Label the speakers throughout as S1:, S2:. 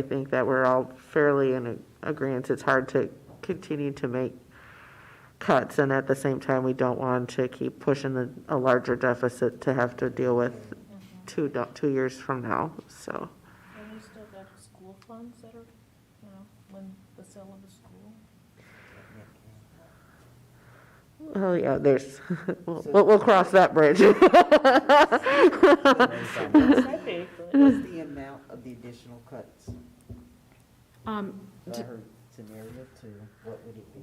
S1: I think that we're all fairly in a- agreeance. It's hard to continue to make cuts, and at the same time, we don't want to keep pushing the- a larger deficit to have to deal with two, do- two years from now, so.
S2: Mm-hmm. And we still got school funds that are, you know, when the sale of the school.
S1: Oh, yeah, there's, we'll, we'll cross that bridge.
S2: That's big, but
S3: What's the amount of the additional cuts?
S4: Um,
S3: If I
S4: d-
S3: heard scenario two, what would it be?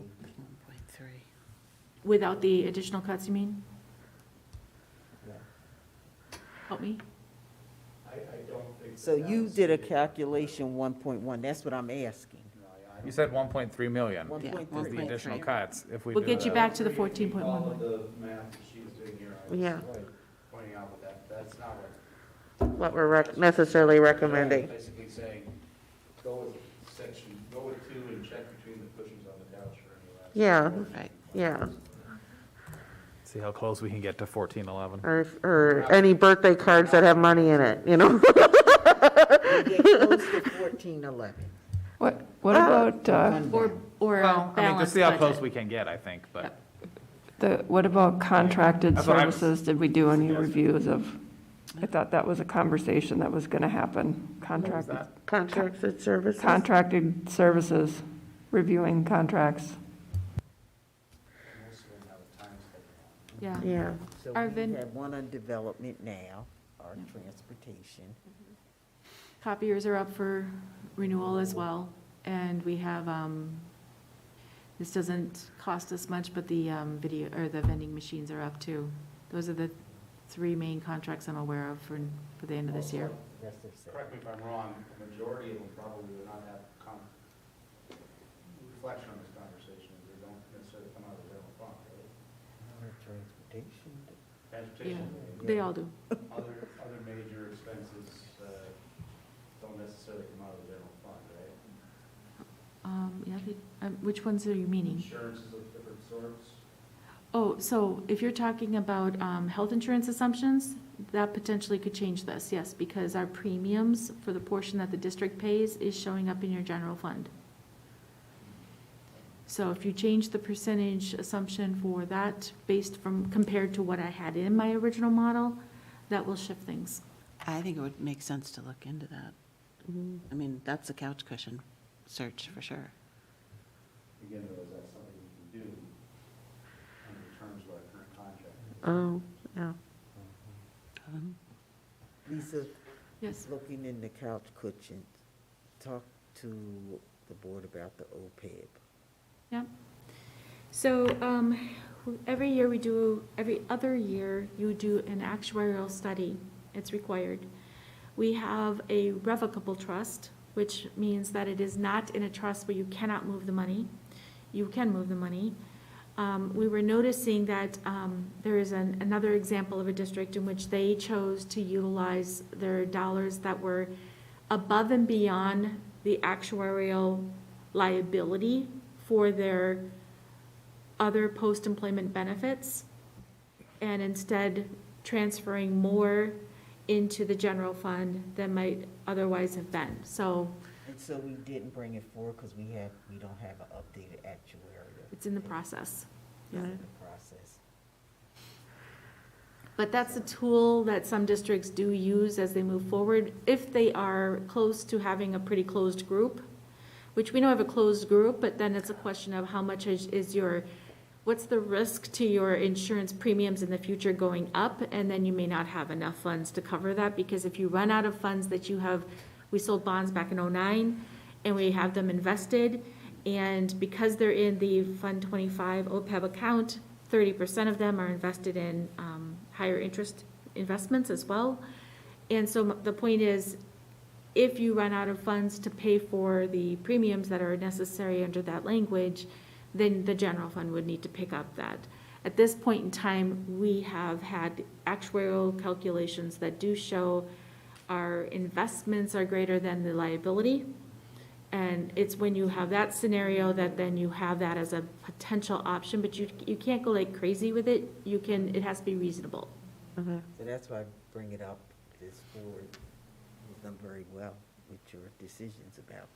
S4: without the additional cuts, you mean?
S3: Yeah.
S4: Help me?
S3: So you did a calculation one point one, that's what I'm asking.
S5: You said one point three million
S3: One
S5: is
S4: Yeah,
S3: point
S5: the
S3: three.
S5: additional cuts if we do
S4: We'll get you
S5: the-
S4: back to the fourteen point one
S6: All
S4: one.
S6: of the math that she was doing here, I
S1: Yeah.
S6: was pointing out with that, that's not what.
S1: What we're rec- necessarily recommending.
S6: Basically saying, go with section, go with two and check between the cushions on the couch or any last.
S1: Yeah,
S7: Right.
S1: yeah.
S5: See how close we can get to fourteen eleven.
S1: Or, if- or any birthday cards that have money in it, you know?
S3: We get close to fourteen eleven.
S7: What, what about, uh,
S4: Or, or a
S5: Well, I mean, just
S4: balanced
S5: see how close
S4: budget.
S5: we can get, I think, but
S7: the, what about contracted
S5: That's what I was-
S7: services? Did we do any reviews of, I thought that was a conversation that was gonna happen, contracted,
S5: that?
S1: Contracts and services.
S7: contracted services, reviewing contracts.
S6: Most of them have a time schedule.
S4: Yeah,
S1: Yeah,
S3: So we
S4: Arvin.
S3: have one on development now, our transportation.
S4: copiers are up for renewal as well, and we have, um, this doesn't cost us much, but the, um, video, or the vending machines are up too. Those are the three main contracts I'm aware of for, for the end of this year.
S3: That's their set.
S6: Correct me if I'm wrong, the majority of them probably will not have con, reflection on this conversation, they don't necessarily come out of the general fund, right?
S3: Our transportation.
S4: Yeah,
S6: Transportation,
S4: they all do.
S6: other, other major expenses, uh, don't necessarily come out of the general fund, right?
S4: Um, yeah, they- um, which ones are you meaning?
S6: Insurance is of different sorts.
S4: Oh, so if you're talking about um, health insurance assumptions, that potentially could change this, yes, because our premiums for the portion that the district pays is showing up in your general fund. So if you change the percentage assumption for that based from, compared to what I had in my original model, that will shift things.
S8: I think it would make sense to look into that. I mean, that's a couch cushion search for sure.
S6: Again, though, is that something we can do under the terms of our current contract?
S1: oh, yeah.
S8: Um,
S3: Lisa,
S4: Yes,
S3: looking in the couch cushions, talk to the board about the E OPEB.
S4: yeah. So um, every year we do, every other year, you do an actuarial study. It's required. We have a revocable trust, which means that it is not in a trust where you cannot move the money. You can move the money. Um, We were noticing that um, there is an- another example of a district in which they chose to utilize their dollars that were above and beyond the actuarial liability for their other post-employment benefits, and instead transferring more into the general fund than might otherwise have been. So
S3: And so we didn't bring it forward because we have, we don't have an updated actuarial.
S4: it's in the process.
S3: It's
S1: Yeah.
S3: in the process.
S4: But that's a tool that some districts do use as they move forward, if they are close to having a pretty closed group, which we know have a closed group, but then it's a question of how much is, is your, what's the risk to your insurance premiums in the future going up? And then you may not have enough funds to cover that, because if you run out of funds that you have, we sold bonds back in oh oh-nine, and we have them invested, and because they're in the Fund twenty-five OPEB account, thirty percent of them are invested in, um, higher interest investments as well. And so m- the point is, if you run out of funds to pay for the premiums that are necessary under that language, then the general fund would need to pick up that. At this point in time, we have had actuarial calculations that do show our investments are greater than the liability. And it's when you have that scenario that then you have that as a potential option, but you, you can't go like crazy with it. You can, it has to be reasonable.
S1: Okay.
S3: So that's why I bring it up, this forward, we've done very well. with your decisions about that.